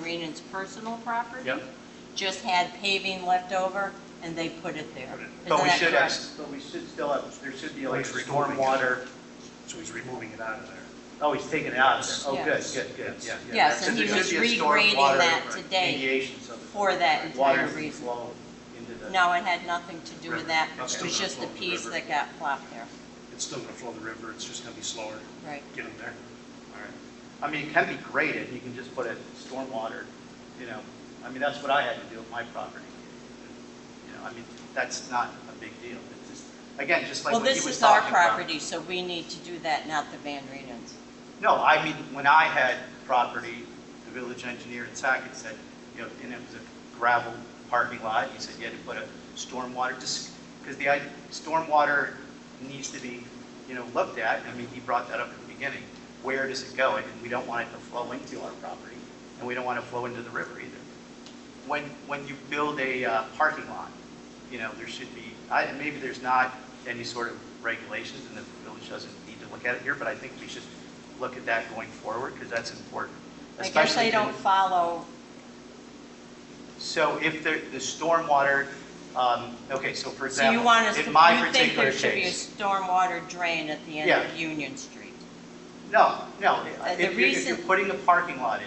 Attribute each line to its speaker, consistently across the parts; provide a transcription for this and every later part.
Speaker 1: Lincoln's personal property.
Speaker 2: Yep.
Speaker 1: Just had paving left over, and they put it there.
Speaker 2: Put it-
Speaker 1: Isn't
Speaker 3: But Oh, we
Speaker 1: that
Speaker 3: should have,
Speaker 1: correct?
Speaker 3: but we should still have, there should be like
Speaker 2: Like removing it.
Speaker 3: stormwater,
Speaker 2: So he's removing it out of there.
Speaker 3: oh, he's taking it out of there. Oh, good,
Speaker 1: Yes.
Speaker 3: good, good, yeah. yeah.
Speaker 1: Yes,
Speaker 3: So
Speaker 1: and
Speaker 3: there
Speaker 1: he
Speaker 3: should
Speaker 1: was
Speaker 3: be a
Speaker 1: regrading
Speaker 3: stormwater
Speaker 1: that today.
Speaker 3: Mediation, so that.
Speaker 1: for that entire
Speaker 3: water doesn't
Speaker 1: reason.
Speaker 3: flow into the.
Speaker 1: No, it had nothing to do with that.
Speaker 2: It's
Speaker 1: It
Speaker 2: still
Speaker 1: was
Speaker 2: gonna
Speaker 1: just the
Speaker 2: flow in the
Speaker 1: piece
Speaker 2: river.
Speaker 1: that got plopped there.
Speaker 2: It's still gonna flow the river, it's just gonna be slower
Speaker 1: Right.
Speaker 2: getting there.
Speaker 3: All right. I mean, it can be graded, you can just put it stormwater, you know, I mean, that's what I had to do with my property. You know, I mean, that's not a big deal, it's just, again, just like
Speaker 1: Well,
Speaker 3: what he
Speaker 1: this
Speaker 3: was
Speaker 1: is our
Speaker 3: talking about.
Speaker 1: property, so we need to do that, not the Van Reenens.
Speaker 3: No, I mean, when I had property, the village engineer in Sackett said, you know, and it was a gravel parking lot, he said you had to put a stormwater, because the, idea- stormwater needs to be, you know, looked at, I mean, he brought that up at the beginning, where does it go, and we don't want it to flow into our property, and we don't want it to flow into the river either. When, when you build a uh, parking lot, you know, there should be, I, and maybe there's not any sort of regulations, and the village doesn't need to look at it here, but I think we should look at that going forward, because that's important.
Speaker 1: I guess
Speaker 3: especially
Speaker 1: they don't follow,
Speaker 3: So if the, the stormwater, um, okay, so for
Speaker 1: so you
Speaker 3: example,
Speaker 1: want us to,
Speaker 3: in my
Speaker 1: you think
Speaker 3: particular
Speaker 1: there should be a
Speaker 3: case.
Speaker 1: stormwater drain at the end
Speaker 3: Yeah.
Speaker 1: of Union Street?
Speaker 3: No, no,
Speaker 1: Uh,
Speaker 3: if
Speaker 1: the
Speaker 3: you're, if you're
Speaker 1: reason-
Speaker 3: putting a parking lot in,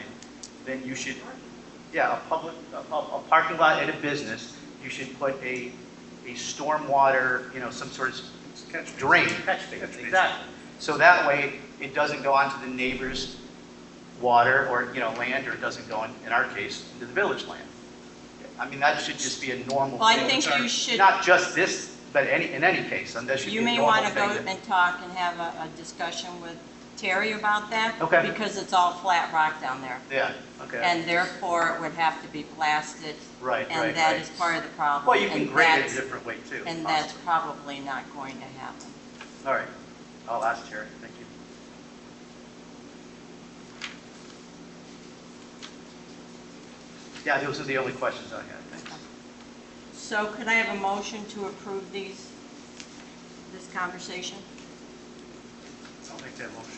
Speaker 3: then you should, yeah, a public, a, a a parking lot and a business, you should put a, a stormwater, you know, some sort of
Speaker 2: Catch
Speaker 3: drain. Catch
Speaker 2: basin.
Speaker 3: Exactly. So that way, it doesn't go onto the neighbor's water or, you know, land, or it doesn't go, in in our case, into the village land. I mean, that should just be a normal
Speaker 1: Well, I
Speaker 3: thing.
Speaker 1: think you should,
Speaker 3: Not just this, but any, in any case, and that should be
Speaker 1: you
Speaker 3: a
Speaker 1: may
Speaker 3: normal
Speaker 1: want
Speaker 3: thing.
Speaker 1: to go
Speaker 3: that-
Speaker 1: and talk and have a, a discussion with Terry about that.
Speaker 3: Okay.
Speaker 1: Because it's all flat rock down there,
Speaker 3: Yeah, okay,
Speaker 1: and therefore it would have to be blasted,
Speaker 3: right, right,
Speaker 1: and that
Speaker 3: right.
Speaker 1: is part of the problem.
Speaker 3: Well, you can
Speaker 1: and
Speaker 3: grade it
Speaker 1: that's-
Speaker 3: a different way too.
Speaker 1: And that's probably not going to happen.
Speaker 3: possibly. All right, I'll ask Terry, thank you. Yeah, those are the only questions I had, thanks.
Speaker 1: So could I have a motion to approve these, this conversation?
Speaker 2: I'll make that motion.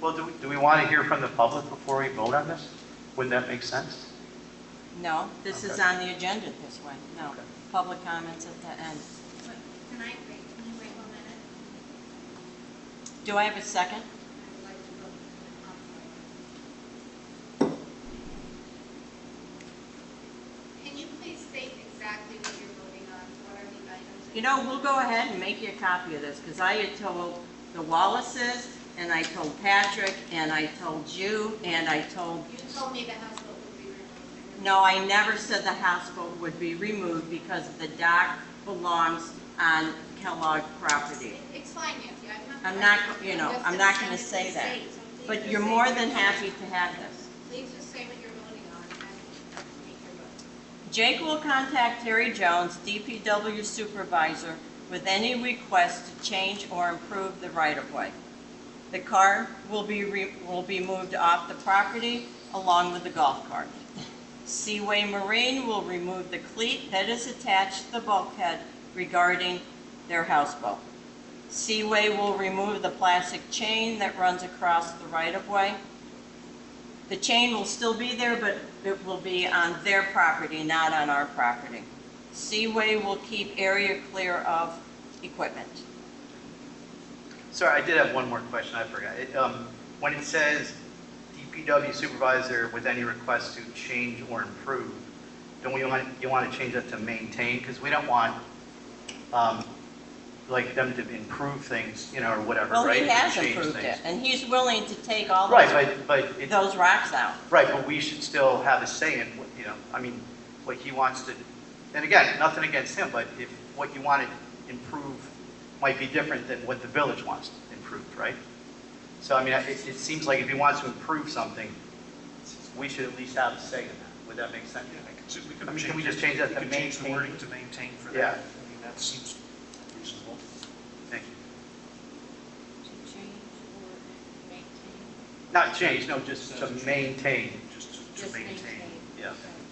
Speaker 3: Well, do we, do we want to hear from the public before we vote on this? Wouldn't that make sense?
Speaker 1: No, this is
Speaker 3: Okay.
Speaker 1: on the agenda this way, no.
Speaker 3: Okay.
Speaker 1: Public comments at the end.
Speaker 4: Wait, Can I wait, can you wait one minute?
Speaker 1: Do I have a second?
Speaker 4: I would like to go to the conference. Can you please state exactly what you're voting on? What are the items? that
Speaker 1: You
Speaker 4: you're
Speaker 1: know, we'll go ahead and make you a copy of this, because I had told the Wallaces, and I told Patrick, and I told you, and I told,
Speaker 4: You told me the house vote would be removed.
Speaker 1: no, I never said the house boat would be removed because the dock belongs on Kellogg property.
Speaker 4: It's fine, Nancy, I'm not.
Speaker 1: I'm not, you know, I'm not gonna say that. But you're more than happy to have this.
Speaker 4: Please just say what you're voting on and make your vote.
Speaker 1: Jake will contact Terry Jones, DPW supervisor, with any request to change or improve the right-of-way. The car will be, re- will be moved off the property along with the golf cart. Seaway Marine will remove the cleat that is attached to the bulkhead regarding their houseboat. Seaway will remove the plastic chain that runs across the right-of-way. The chain will still be there, but it will be on their property, not on our property. Seaway will keep area clear of equipment.
Speaker 3: Sorry, I did have one more question, I forgot. It, um, When it says DPW supervisor with any request to change or improve, don't we want, you want to change that to maintain? Because we don't want, um, like, them to improve things, you know, or whatever, right?
Speaker 1: Well, he
Speaker 3: Or
Speaker 1: has
Speaker 3: change
Speaker 1: improved it,
Speaker 3: things.
Speaker 1: and he's willing to take all those,
Speaker 3: Right, but, but, it-
Speaker 1: those rocks out.
Speaker 3: right, but we should still have a say in, what you know, I mean, what he wants to, and again, nothing against him, but if what you want to improve might be different than what the village wants improved, right? So I mean, it, it seems like if he wants to improve something, we should at least have a say in that. Would that make sense?
Speaker 2: Yeah, I could, we
Speaker 3: I
Speaker 2: could
Speaker 3: mean,
Speaker 2: change.
Speaker 3: can we just change that
Speaker 2: we
Speaker 3: to
Speaker 2: could change the
Speaker 3: maintain?
Speaker 2: wording to maintain for
Speaker 3: Yeah.
Speaker 2: that. I mean, that seems reasonable.
Speaker 3: Thank you.
Speaker 4: To change or maintain?
Speaker 3: Not change, no, just to maintain.
Speaker 2: Just to- to
Speaker 4: Just
Speaker 2: maintain.
Speaker 4: maintain.
Speaker 3: Yeah.
Speaker 4: Okay.